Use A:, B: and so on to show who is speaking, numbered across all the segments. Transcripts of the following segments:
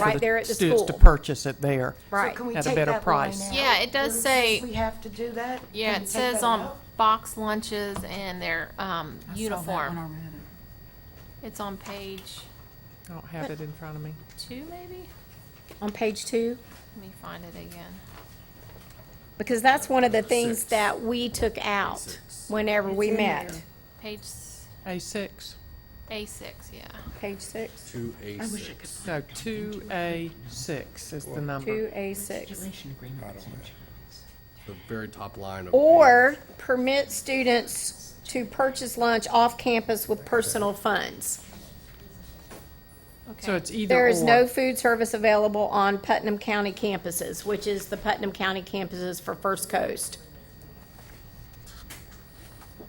A: for
B: Right there at the
A: students To
B: school.
A: purchase it there.
B: Right.
C: Can we
A: At a
C: take
A: better
C: that line
A: price.
C: out?
D: Yeah, it does
C: Bruce,
D: say-
C: We have to do that?
D: Yeah,
C: Can
D: it
C: we take
D: says
C: that
D: on
C: out?
D: box lunches and their um,
E: I saw that one
D: uniform.
E: already.
D: It's on page
A: I don't have it in front of me.
D: two, maybe?
B: On page two,
D: Let me find it again.
B: because that's one of the things
F: Six.
B: that we took out
F: Six.
B: whenever we
C: It's in
B: met.
C: there.
D: Page s-
A: A6,
D: A6, yeah.
B: Page six,
F: Two A
E: I wish I
F: six.
E: could.
A: no, 2A6 is the number.
B: two A six.
E: Relation agreement with insurance.
F: The very top line of.
B: Or permit students to purchase lunch off campus with personal funds.
A: So
D: Okay,
A: it's either
B: There is no
A: or.
B: food service available on Putnam County campuses, which is the Putnam County campuses for First Coast.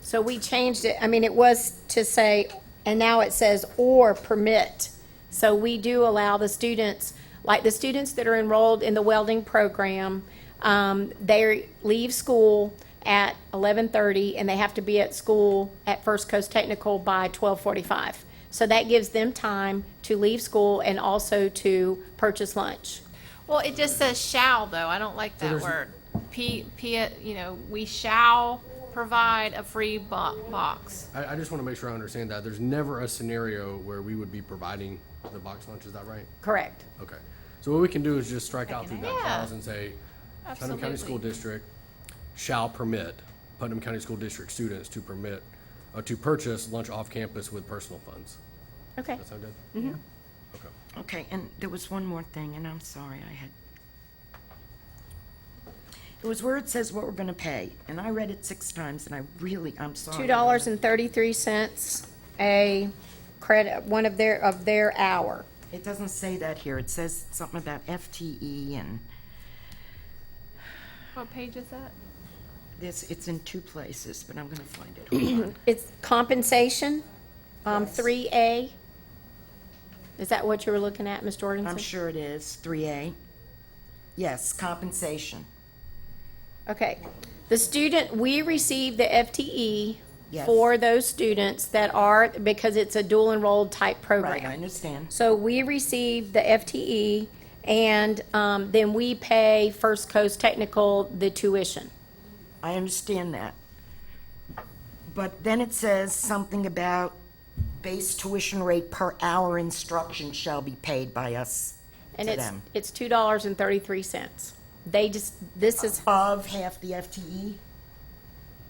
B: So we changed it, I mean, it was to say, and now it says or permit. So we do allow the students, like the students that are enrolled in the welding program, um, they leave school at eleven thirty and they have to be at school at First Coast Technical by twelve forty-five. So that gives them time to leave school and also to purchase lunch.
D: well, it just says shall, though, I don't like that word. P, P, you know, we shall provide a free bo- box.
F: I, I just want to make sure I understand that. There's never a scenario where we would be providing the box lunch, is that right?
B: Correct.
F: Okay. So what we can do is just strike out through that
D: Yeah.
F: clause and say, Putnam County
D: Absolutely.
F: School District shall permit Putnam County School District students to permit, uh, to purchase lunch off campus with personal funds.
B: Okay.
F: That sound good? Mm-hmm. Okay.
E: Okay, and there was one more thing, and I'm sorry, I had. It was where it says what we're gonna pay, and I read it six times, and I really, I'm sorry.
B: two dollars and thirty-three cents a credit, one of their, of their hour.
E: It doesn't say that here. It says something about FTE and
D: What page is that?
E: this, it's in two places, but I'm gonna find it. Hold on.
B: It's compensation, um, three A. Is that what you were looking at, Ms.
E: I'm
B: Jorgensen?
E: sure it is, three A. Yes, compensation.
B: Okay. The student, we receive the FTE
E: Yes.
B: for those students that are, because it's a dual enrolled type
E: Right, I
B: program.
E: understand.
B: So we receive the FTE and, um, then we pay First Coast Technical the tuition.
E: I understand that. But then it says something about base tuition rate per hour instruction shall be paid by us
B: And
E: to
B: it's,
E: them.
B: it's two dollars and thirty-three cents. They just, this is,
E: Of half the FTE?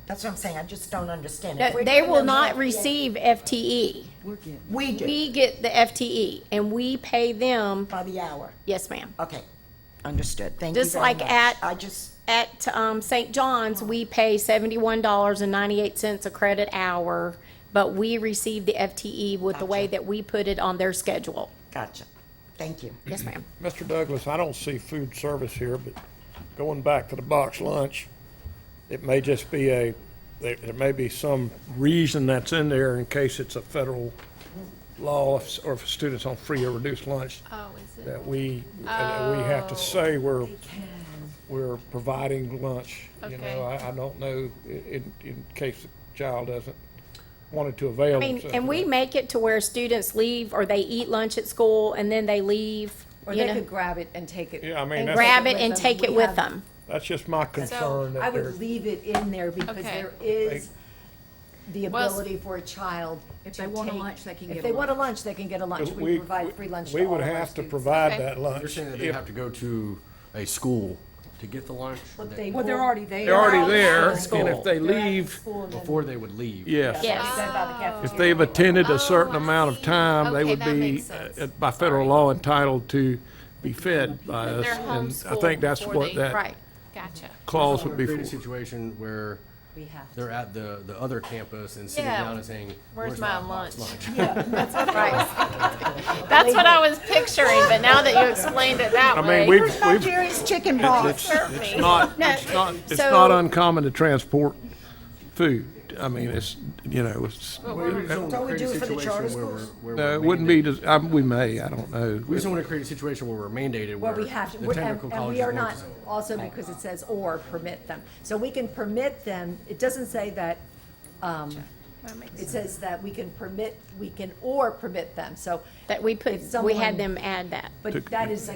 E: That's what I'm saying, I just don't understand. If we're
B: they
E: giving
B: will
E: them E. half
B: not
E: the
B: receive E. FTE.
E: FTE, We do,
B: We get the FTE and we pay them,
E: by the hour.
B: yes, ma'am.
E: Okay, understood, thank you
B: Just
E: very
B: like
E: much.
B: at-
E: I just,
B: At, um, St. John's, we pay seventy-one dollars and ninety-eight cents a credit hour, but we receive the FTE with the way
E: Gotcha.
B: that we put it on their schedule.
E: gotcha, thank you.
B: Yes, ma'am.
G: Mr. Douglas, I don't see food service here, but going back to the box lunch, it may just be a, there, there may be some reason that's in there in case it's a federal law if- or if students on free or reduced lunch
D: Oh, is it?
G: that we, that we have to say we're, we're providing lunch. You
D: Okay.
G: know, I, I don't know i- in, in case the child doesn't wanted to avail
B: I mean,
G: themselves.
B: and
G: of
B: we
G: it.
B: make it to where students leave or they eat lunch at school and then they leave,
H: Or
B: you
H: they
B: know,
H: could grab it and take it.
G: Yeah, I mean,
B: and
G: that's,
B: grab it and
H: Take
B: take it
H: it with them.
B: with
H: We have-
B: them.
G: that's just my concern
H: I
G: that there's.
H: would leave it in there because
D: Okay.
H: there is the
D: Well, s-
H: ability for a child
I: If
H: to
I: they want a
H: take-
I: lunch, they can get
H: If
I: a
H: they want a
I: lunch.
H: lunch, they can get a lunch. We provide free lunch to
G: we
H: all
G: would
H: of our
G: have to
H: students.
G: provide
D: Okay.
G: that
F: You're
G: lunch.
F: saying that they
G: if-
F: have to go to a school to get the lunch? or they-
H: But they
I: Well, they're
H: will-
I: already there.
G: They're already
F: at
G: there, and if they
H: they're at
G: leave,
H: school and then-
F: Before they would leave?
G: yes.
B: Yes.
H: They go by the
G: If
H: cafeteria.
G: they've attended a certain
D: Oh, I
G: amount of
D: see.
G: time, they
D: Okay,
G: would
D: that
G: be,
D: makes sense.
G: uh, by federal law, entitled to be fed by us.
D: They're
G: And I
D: homeschooled
G: think that's
D: before
G: what
D: they-
G: that
B: Right.
D: Gotcha.
G: clause would
F: We're
G: be
F: creating a
G: for.
F: situation where
H: We have
F: they're at the, the other campus and sitting
D: Yeah.
F: down and saying,
D: Where's my
F: box
D: lunch?"
B: That's what I was picturing, but now that you explained it that
G: I mean, we've, we've,
C: Jerry's Chicken Box.
G: it's not, it's not, it's
B: so-
G: not uncommon to transport food. I mean, it's, you know, it's,
F: We just don't
E: Don't
F: wanna
E: we
F: create a
E: do it for the
F: situation
E: charter
F: where we're-
E: schools?
F: where
G: no,
F: we're
G: it wouldn't be,
F: mandated.
G: just- I- we may, I don't know.
F: We just don't want to create a situation where we're mandated,
H: Well,
F: where
H: we have to,
F: the
H: we're- and
F: technical
H: and
F: colleges
H: we are
F: won't.
H: not,
F: do it.
H: also because it says or permit them. So we can permit them, it doesn't say that um,
D: That makes
H: It says that we can permit, we can or permit them, so.
B: That we put,
H: if
B: we
H: someone-
B: had them add that.
H: But that is